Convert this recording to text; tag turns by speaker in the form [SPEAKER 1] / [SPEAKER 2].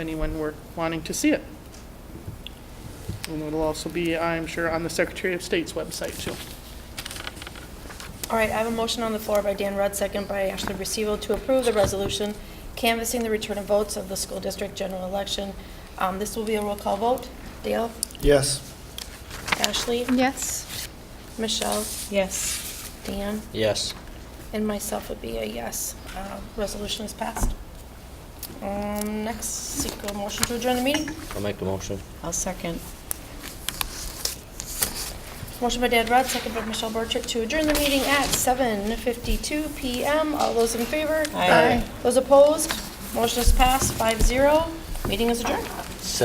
[SPEAKER 1] anyone were wanting to see it. And it'll also be, I'm sure, on the Secretary of State's website, too.
[SPEAKER 2] All right, I have a motion on the floor by Dan Rudd, second by Ashley Recevo, to approve the resolution canvassing the return of votes of the school district general election. Um, This will be a roll call vote. Dale?
[SPEAKER 3] Yes.
[SPEAKER 2] Ashley?
[SPEAKER 4] Yes.
[SPEAKER 2] Michelle?
[SPEAKER 4] Yes.
[SPEAKER 2] Dan?
[SPEAKER 3] Yes.
[SPEAKER 2] And myself would be a yes. Uh, Resolution is passed. Um, Next, seek a motion to adjourn the meeting.
[SPEAKER 3] I'll make the motion.
[SPEAKER 4] I'll second.
[SPEAKER 2] Motion by Dan Rudd, second by Michelle Borchert, to adjourn the meeting at 7:52 PM. All those in favor?
[SPEAKER 4] Aye. Aye.
[SPEAKER 2] Those opposed? Motion is passed, 5-0. Meeting is adjourned.